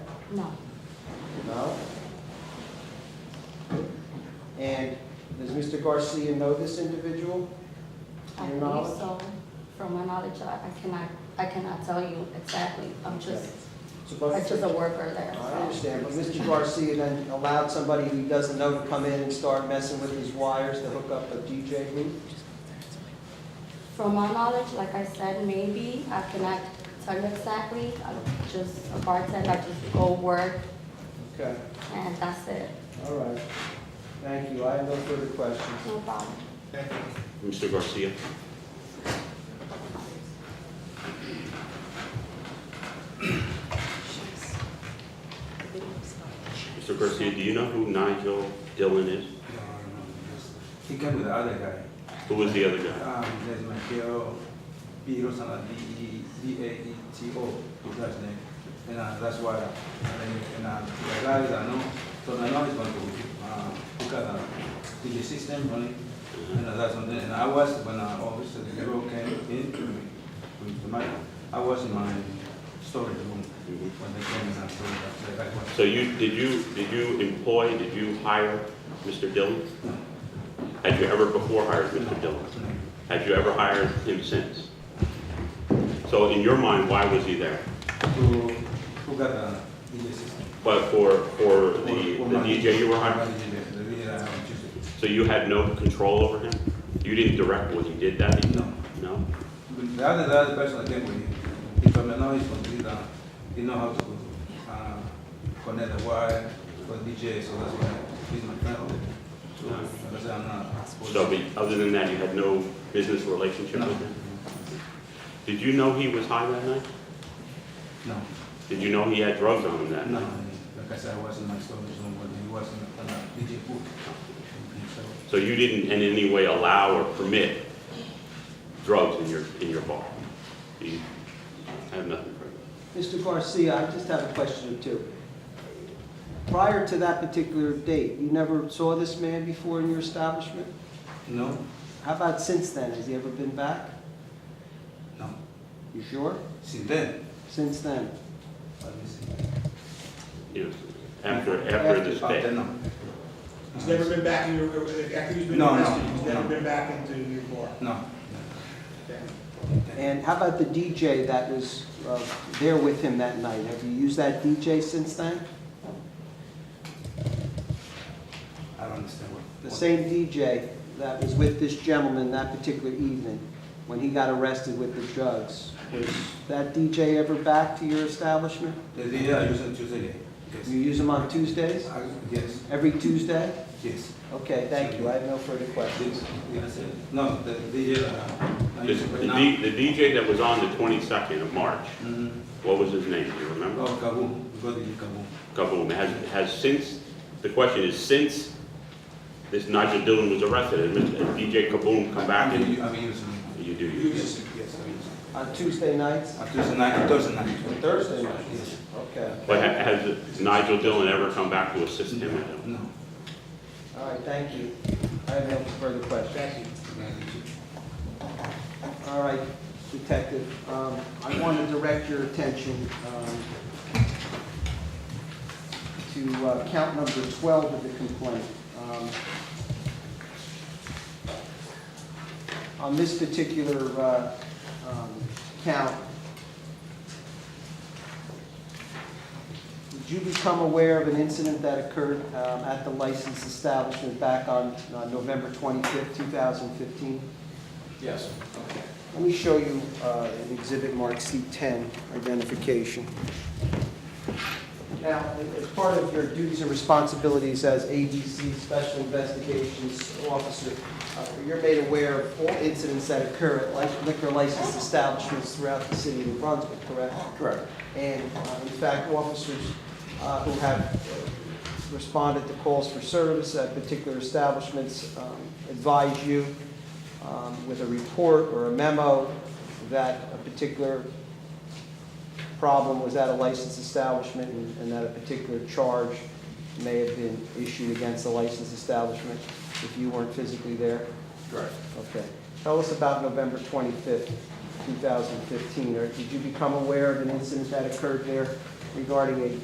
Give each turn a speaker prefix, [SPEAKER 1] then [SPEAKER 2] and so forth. [SPEAKER 1] No.
[SPEAKER 2] No? And does Mr. Garcia know this individual?
[SPEAKER 1] I
[SPEAKER 2] Your
[SPEAKER 1] believe
[SPEAKER 2] knowledge?
[SPEAKER 1] so. From my knowledge, I I cannot, I cannot tell you exactly. I'm just,
[SPEAKER 2] So,
[SPEAKER 1] I'm
[SPEAKER 2] but-
[SPEAKER 1] just a worker there.
[SPEAKER 2] I
[SPEAKER 1] so.
[SPEAKER 2] understand, but Mr. Garcia then allowed somebody who he doesn't know to come in and start messing with his wires to hook up a DJ loop?
[SPEAKER 1] From my knowledge, like I said, maybe, I cannot tell you exactly. I'm just a bartender, I just go work
[SPEAKER 2] Okay,
[SPEAKER 1] and that's it.
[SPEAKER 2] all right. Thank you, I have no further questions.
[SPEAKER 1] No problem.
[SPEAKER 3] Mr. Garcia. Mr. Garcia, do you know who Nigel Dillon is?
[SPEAKER 4] He came with the other guy.
[SPEAKER 3] Who was the other guy?
[SPEAKER 4] Um, there's Mateo Piro Sala, D E D A E T O, his last name. And uh, that's why, and, then- and uh, the guy that I know, so I know he's going to uh, look at the DJ system only. And uh, that's something, and I was, when uh, obviously the girl came in to me, with the mic, I was in my storage room
[SPEAKER 3] Mhm.
[SPEAKER 4] when they came and I told them, like, I was.
[SPEAKER 3] So you, did you, did you employ, did you hire Mr. Dillon?
[SPEAKER 4] No,
[SPEAKER 3] Had you ever before hired Mr.
[SPEAKER 4] no,
[SPEAKER 3] Dillon?
[SPEAKER 4] no.
[SPEAKER 3] Had you ever hired him since? So in your mind, why was he there?
[SPEAKER 4] to look at the DJ system.
[SPEAKER 3] But for, for the
[SPEAKER 4] Or- or
[SPEAKER 3] the
[SPEAKER 4] my-
[SPEAKER 3] DJ you were hiring?
[SPEAKER 4] my DJ, the DJ that I uh, have chosen.
[SPEAKER 3] So you had no control over him? You didn't direct when he did that?
[SPEAKER 4] No.
[SPEAKER 3] No?
[SPEAKER 4] But The other, the other person that came with him, he told me now he's from Trinidad, he know how to uh, connect the wire for DJ, so that's why he's my friend. So that's why I'm not.
[SPEAKER 3] So, but other than that, you had no business relationship
[SPEAKER 4] No.
[SPEAKER 3] with him? Did you know he was high that night?
[SPEAKER 4] No,
[SPEAKER 3] Did you know he had drugs on him that
[SPEAKER 4] no,
[SPEAKER 3] night?
[SPEAKER 4] like I said, I was in my storage room, but he was in the uh, DJ booth. So,
[SPEAKER 3] So you didn't in any way allow or permit drugs in your, in your bar? You I have nothing for you.
[SPEAKER 2] Mr. Garcia, I just have a question or two. Prior to that particular date, you never saw this man before in your establishment?
[SPEAKER 4] No,
[SPEAKER 2] How about since then? Has he ever been back?
[SPEAKER 4] no,
[SPEAKER 2] You sure?
[SPEAKER 4] since then,
[SPEAKER 2] Since then?
[SPEAKER 4] let me see.
[SPEAKER 3] you know, after, after this
[SPEAKER 4] After,
[SPEAKER 3] day?
[SPEAKER 4] no.
[SPEAKER 5] He's never been back in your, after he's been
[SPEAKER 4] No, no,
[SPEAKER 5] arrested, he's never
[SPEAKER 4] no.
[SPEAKER 5] been back into your bar.
[SPEAKER 4] No.
[SPEAKER 5] Okay.
[SPEAKER 2] And how about the DJ that was uh, there with him that night? Have you used that DJ since then?
[SPEAKER 4] I don't understand what.
[SPEAKER 2] The
[SPEAKER 4] what-
[SPEAKER 2] same DJ that was with this gentleman that particular evening when he got arrested with the drugs? Was that DJ ever back to your establishment?
[SPEAKER 4] The day I use on Tuesday.
[SPEAKER 2] You
[SPEAKER 4] Yes.
[SPEAKER 2] use him on Tuesdays?
[SPEAKER 4] I- Yes,
[SPEAKER 2] Every Tuesday?
[SPEAKER 4] yes.
[SPEAKER 2] Okay, thank you. I have no further questions.
[SPEAKER 4] Yes, yes. No, the DJ. uh, I
[SPEAKER 3] The
[SPEAKER 4] use it right
[SPEAKER 3] the
[SPEAKER 4] now.
[SPEAKER 3] D- the DJ that was on the 22nd of March,
[SPEAKER 4] Mhm.
[SPEAKER 3] what was his name? Do you remember?
[SPEAKER 4] Oh, Kaboom, we got the Kaboom.
[SPEAKER 3] Kaboom, has, has since, the question is, since this Nigel Dillon was arrested, has Mr. DJ Kaboom come back
[SPEAKER 4] I'm
[SPEAKER 3] and
[SPEAKER 4] u- I'm using it.
[SPEAKER 3] you do
[SPEAKER 5] You
[SPEAKER 3] use?
[SPEAKER 5] just-
[SPEAKER 4] Yes, yes, I'm using
[SPEAKER 2] On Tuesday nights?
[SPEAKER 4] it. On Tuesday night, Thursday night.
[SPEAKER 2] Thursday night?
[SPEAKER 4] Yes.
[SPEAKER 2] Okay.
[SPEAKER 3] But ha- has Nigel Dillon ever come back to assist him with him?
[SPEAKER 4] No.
[SPEAKER 2] All right, thank you. I have no further questions.
[SPEAKER 5] Thank you.
[SPEAKER 2] All right, Detective, um, I want to direct your attention um, to uh, count number 12 of the complaint. Um, On this particular uh, um, count, did you become aware of an incident that occurred um, at the licensed establishment back on uh, November 25th, 2015?
[SPEAKER 4] Yes.
[SPEAKER 2] Let me show you uh, an exhibit marked C10, identification. Now, as part of your duties and responsibilities as ABC Special Investigations Officer, uh, you're made aware of all incidents that occur at li- liquor licensed establishments throughout the city of New Brunswick, correct?
[SPEAKER 4] Correct.
[SPEAKER 2] And uh, in fact, officers uh, who have responded to calls for service at particular establishments um, advise you um, with a report or a memo that a particular problem was at a licensed establishment and- and that a particular charge may have been issued against the licensed establishment if you weren't physically there?
[SPEAKER 4] Correct.
[SPEAKER 2] Okay. Tell us about November 25th, 2015, or did you become aware of an incident that occurred there regarding